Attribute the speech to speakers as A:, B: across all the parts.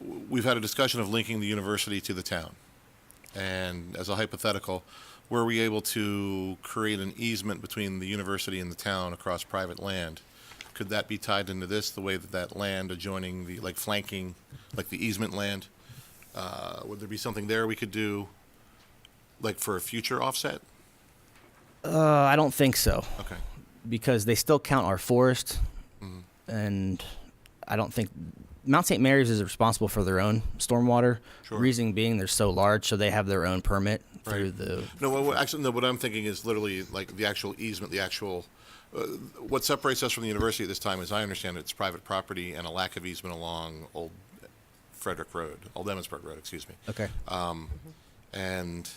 A: we've had a discussion of linking the university to the town. And as a hypothetical, were we able to create an easement between the university and the town across private land? Could that be tied into this, the way that that land adjoining the, like flanking, like the easement land? Uh, Would there be something there we could do, like for a future offset?
B: Uh, I don't think so
A: Okay,
B: because they still count our forest,
A: Mm-hmm.
B: and I don't think Mount St. Mary's is responsible for their own stormwater.
A: Sure.
B: Reason being, they're so large, so they have their own permit through
A: Right.
B: the
A: no, what- what, actually, no, what I'm thinking is literally like the actual easement, the actual, uh, what separates us from the university at this time, as I understand it, it's private property and a lack of easement along Old Frederick Road, Old Emmitsburg Road, excuse me.
B: okay.
A: And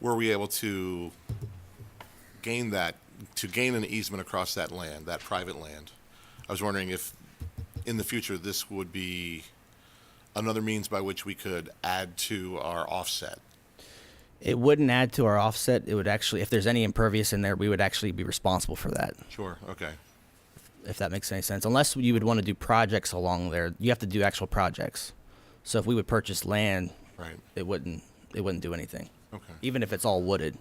A: were we able to gain that, to gain an easement across that land, that private land? I was wondering if, in the future, this would be another means by which we could add to our offset.
B: It wouldn't add to our offset. It would actually, if there's any impervious in there, we would actually be responsible for that.
A: Sure, okay.
B: If that makes any sense, unless you would want to do projects along there, you have to do actual projects. So if we would purchase land,
A: Right,
B: it wouldn't it wouldn't do anything,
A: okay,
B: even if it's all wooded.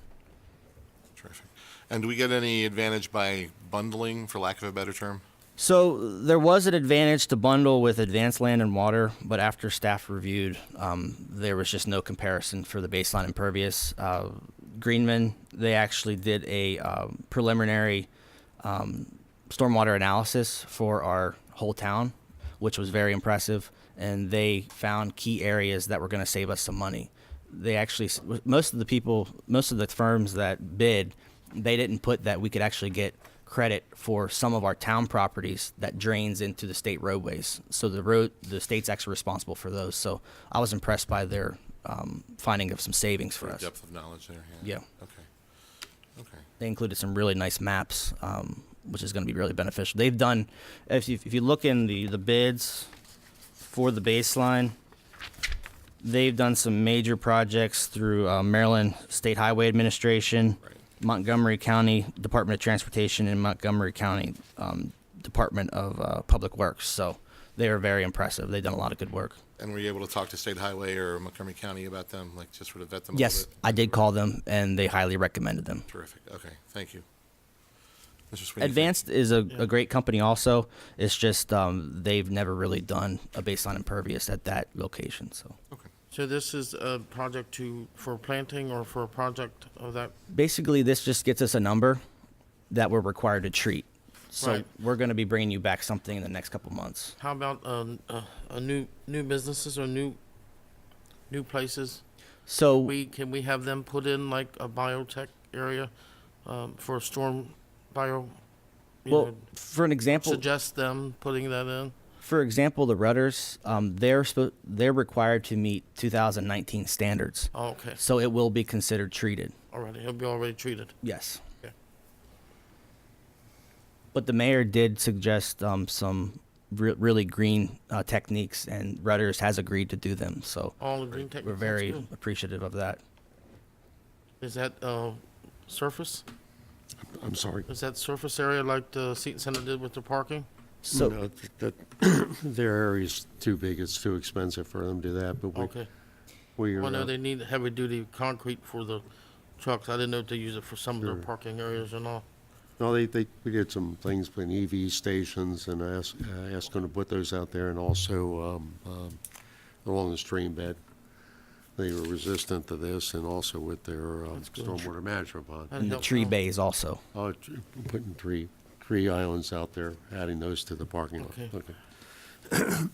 A: terrific. And do we get any advantage by bundling, for lack of a better term?
B: So there was an advantage to bundle with advanced land and water, but after staff reviewed, um, there was just no comparison for the baseline impervious. Uh, Greenman, they actually did a um, preliminary um, stormwater analysis for our whole town, which was very impressive, and they found key areas that were going to save us some money. They actually, s- most of the people, most of the firms that bid, they didn't put that we could actually get credit for some of our town properties that drains into the state roadways. So the road, the state's actually responsible for those. So I was impressed by their um, finding of some savings for
A: Your
B: us.
A: Depth of knowledge there, yeah?
B: Yeah.
A: Okay, okay.
B: They included some really nice maps, um, which is going to be really beneficial. They've done, if you, if you look in the, the bids for the baseline, they've done some major projects through uh, Maryland State Highway Administration,
A: Right.
B: Montgomery County Department of Transportation, and Montgomery County um, Department of uh, Public Works. So they are very impressive. They've done a lot of good work.
A: And were you able to talk to State Highway or Montgomery County about them, like just sort of vet them? a little
B: Yes,
A: bit?
B: I did call them, and they highly recommended them.
A: Terrific. Okay, thank you. Mr. Sweeney. thank-
B: Advanced is a, a great company also. It's just um, they've never really done a baseline impervious at that location. So
A: Okay,
C: So this is a project to, for planting or for a project of that?
B: basically, this just gets us a number that we're required to treat. So
C: Right.
B: we're going to be bringing you back something in the next couple months.
C: How about, um, uh, a new, new businesses or new, new places?
B: So
C: We, can we have them put in like a biotech area, um, for a storm bio? you
B: well,
C: know,
B: for an example,
C: Suggest them putting that in?
B: for example, the rudders um, they're spo- they're required to meet 2019 standards.
C: Oh, okay,
B: So it will be considered treated.
C: already, it'll be already treated.
B: Yes.
C: Okay.
B: But the mayor did suggest um, some re- really green uh, techniques, and Rudders has agreed to do them. So
C: All the green tech.
B: we're
C: that's
B: very
C: good.
B: appreciative of that.
C: Is that, uh, surface?
D: I'm sorry.
C: Is that surface area like the Seton Center did with the parking?
B: So
D: No, th- that- Their area's too big, it's too expensive for them to do that, but we,
C: Okay.
D: we are,
C: Well, no,
D: uh,
C: they need heavy-duty concrete for the trucks. I didn't know if they use it for some of their
D: Sure.
C: parking areas and all.
D: no, they, they, we did some things with EV stations and I asked, I asked them to put those out there and also, um, um, along the stream bed. They were resistant to this and also with their, um, stormwater management
C: That
D: pond.
B: and the
C: helps
B: tree
C: out.
B: bays also.
D: Oh, tr- putting three, three islands out there, adding those to the parking lot.
C: Okay.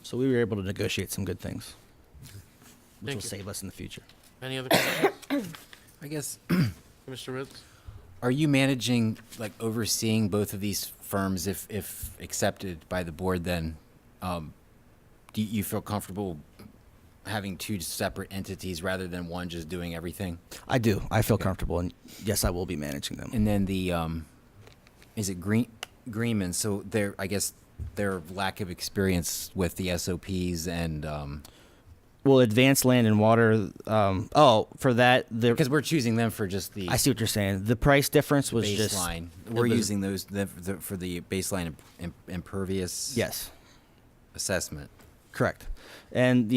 B: So we were able to negotiate some good things, which
C: Thank
B: will
C: you.
B: save us in the future.
C: Any other questions,
E: I guess,
C: Mr. Ritz?
E: are you managing, like overseeing both of these firms if, if accepted by the board then? Um, do you feel comfortable having two separate entities rather than one just doing everything?
B: I do. I feel comfortable, and yes, I will be managing them.
E: And then the, um, is it Green, Greenman? So their, I guess their lack of experience with the SOPs and, um,
B: well, advanced land and water. Um, oh, for that, the,
E: because we're choosing them for just the.
B: I see what you're saying. The price difference was just
E: baseline. We're
B: it was-
E: using those the, the, for the baseline imp- impervious
B: Yes,
E: assessment.
B: correct. And the